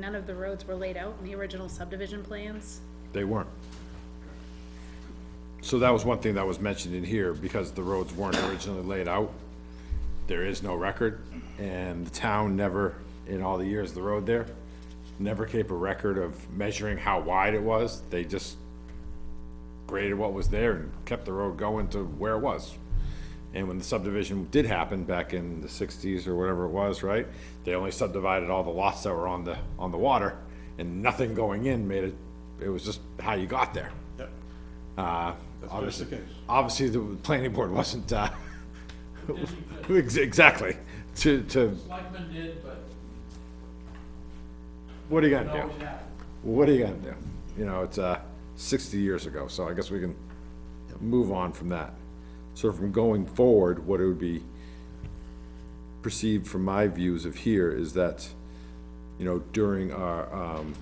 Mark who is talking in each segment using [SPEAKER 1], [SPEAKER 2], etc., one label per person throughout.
[SPEAKER 1] None of the roads were laid out in the original subdivision plans.
[SPEAKER 2] They weren't. So that was one thing that was mentioned in here, because the roads weren't originally laid out. There is no record, and the town never, in all the years of the road there, never kept a record of measuring how wide it was. They just graded what was there and kept the road going to where it was. And when the subdivision did happen back in the sixties or whatever it was, right? They only subdivided all the lots that were on the, on the water and nothing going in made it, it was just how you got there.
[SPEAKER 3] Yep,
[SPEAKER 2] Uh,
[SPEAKER 3] that's the
[SPEAKER 2] obviously,
[SPEAKER 3] case.
[SPEAKER 2] obviously the planning board wasn't, uh, ex- exactly, to, to,
[SPEAKER 4] Selectmen did, but
[SPEAKER 2] what are you gonna
[SPEAKER 4] no,
[SPEAKER 2] do?
[SPEAKER 4] yeah.
[SPEAKER 2] What are you gonna do? You know, it's, uh, sixty years ago, so I guess we can move on from that. So from going forward, what it would be perceived from my views of here is that, you know, during our, um,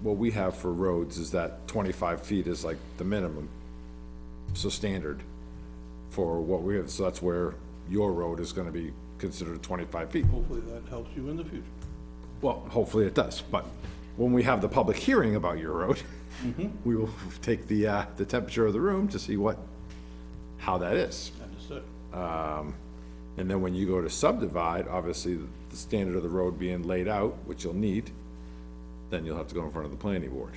[SPEAKER 2] what we have for roads is that twenty-five feet is like the minimum, so standard for what we have, so that's where your road is gonna be considered twenty-five feet.
[SPEAKER 3] Hopefully that helps you in the future.
[SPEAKER 2] Well, hopefully it does, but when we have the public hearing about your road, we will take the, uh, the temperature of the room to see what, how that is.
[SPEAKER 3] Understood.
[SPEAKER 2] And then when you go to subdivide, obviously, the standard of the road being laid out, which you'll need, then you'll have to go in front of the planning board.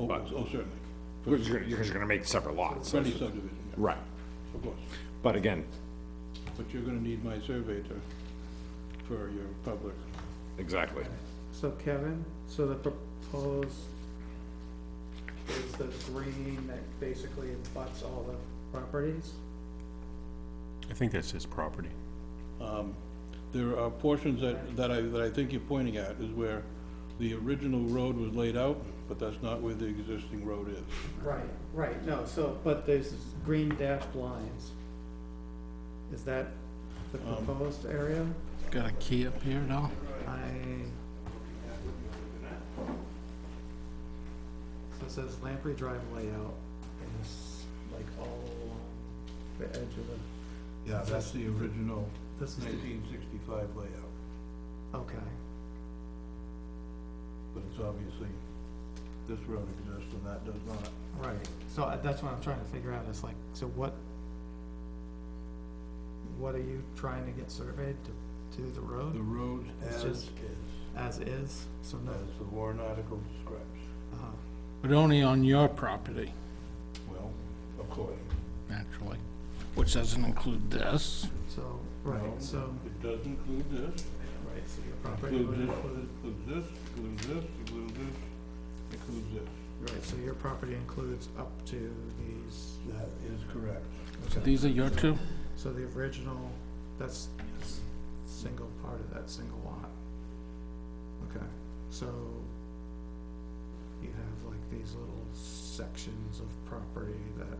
[SPEAKER 3] Oh, oh, certainly.
[SPEAKER 2] Because you're, you're just gonna make separate lots.
[SPEAKER 3] For any subdivision, yeah,
[SPEAKER 2] Right,
[SPEAKER 3] of course.
[SPEAKER 2] but again,
[SPEAKER 3] But you're gonna need my survey to, for your public.
[SPEAKER 2] exactly.
[SPEAKER 5] So Kevin, so the proposed is the green that basically abuts all the properties?
[SPEAKER 6] I think that's his property.
[SPEAKER 3] There are portions that, that I, that I think you're pointing at is where the original road was laid out, but that's not where the existing road is.
[SPEAKER 5] Right, right, no, so, but there's green dashed lines. Is that the proposed area?
[SPEAKER 4] Got a key up here now?
[SPEAKER 5] I. So it says Lamprey Drive layout is like all along the edge of the,
[SPEAKER 3] Yeah, that's the original
[SPEAKER 5] this is, the-
[SPEAKER 3] nineteen sixty-five layout,
[SPEAKER 5] okay,
[SPEAKER 3] but it's obviously, this road exists and that does not.
[SPEAKER 5] right, so I- that's what I'm trying to figure out, is like, so what? What are you trying to get surveyed to, to the
[SPEAKER 3] The
[SPEAKER 5] road
[SPEAKER 3] road
[SPEAKER 5] It's
[SPEAKER 3] as is,
[SPEAKER 5] just- as is, so no,
[SPEAKER 3] as the Warren article describes.
[SPEAKER 5] uh,
[SPEAKER 4] But only on your property,
[SPEAKER 3] Well, of course.
[SPEAKER 4] naturally, which doesn't include this.
[SPEAKER 5] so, right, so,
[SPEAKER 3] It does include this,
[SPEAKER 5] right, so your property
[SPEAKER 3] includes
[SPEAKER 5] would
[SPEAKER 3] this,
[SPEAKER 5] include.
[SPEAKER 3] includes this, includes this, includes this, includes this.
[SPEAKER 5] Right, so your property includes up to these,
[SPEAKER 3] That is correct.
[SPEAKER 4] So these are your two?
[SPEAKER 5] so the original, that's s- single part of that single lot. Okay, so you have like these little sections of property that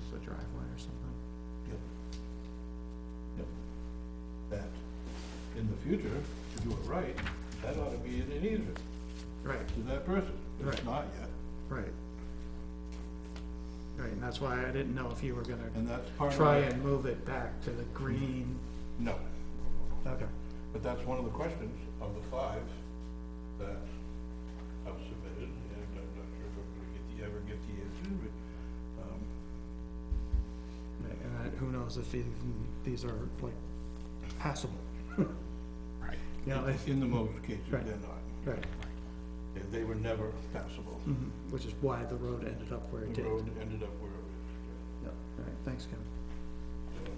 [SPEAKER 5] is a driveway or something.
[SPEAKER 3] That, in the future, to do it right, that ought to be in an easement
[SPEAKER 5] Right,
[SPEAKER 3] to that person. It's
[SPEAKER 5] Right.
[SPEAKER 3] not yet,
[SPEAKER 5] right. Right, and that's why I didn't know if you were gonna
[SPEAKER 3] and that's part of.
[SPEAKER 5] try
[SPEAKER 3] it.
[SPEAKER 5] and move it back to the green.
[SPEAKER 3] No,
[SPEAKER 5] Okay.
[SPEAKER 3] but that's one of the questions of the five that I've submitted, and I'm not sure if I'm gonna get the, ever get the answer, but, um,
[SPEAKER 5] And I- who knows if even these are like passable.
[SPEAKER 4] Right.
[SPEAKER 5] You know, if-
[SPEAKER 3] In the most cases, they're
[SPEAKER 5] Right.
[SPEAKER 3] not.
[SPEAKER 5] right,
[SPEAKER 3] They- They were never passable.
[SPEAKER 5] mhm, which is why the road ended up where it
[SPEAKER 3] The
[SPEAKER 5] did.
[SPEAKER 3] road ended up where it
[SPEAKER 5] Yep, all right, thanks, Kevin.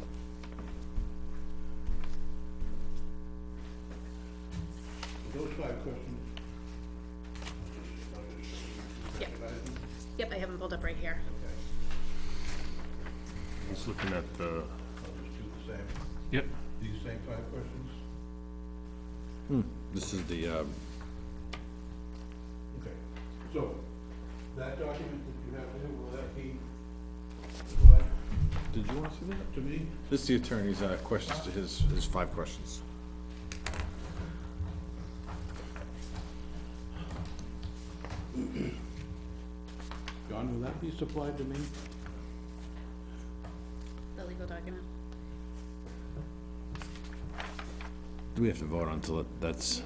[SPEAKER 3] was. So Those five questions.
[SPEAKER 1] Yep. Yep, I have them pulled up right here.
[SPEAKER 6] He's looking at the.
[SPEAKER 3] I'll just do the same,
[SPEAKER 6] Yep.
[SPEAKER 3] these same five questions?
[SPEAKER 2] This is the, um,
[SPEAKER 3] Okay, so that document that you have there, will that be supplied
[SPEAKER 2] did you wanna see that?
[SPEAKER 3] to me?
[SPEAKER 2] This is the attorney's, uh, questions to his, his five questions.
[SPEAKER 3] John, will that be supplied to me?
[SPEAKER 1] The legal document.
[SPEAKER 2] do we have to vote on until that's?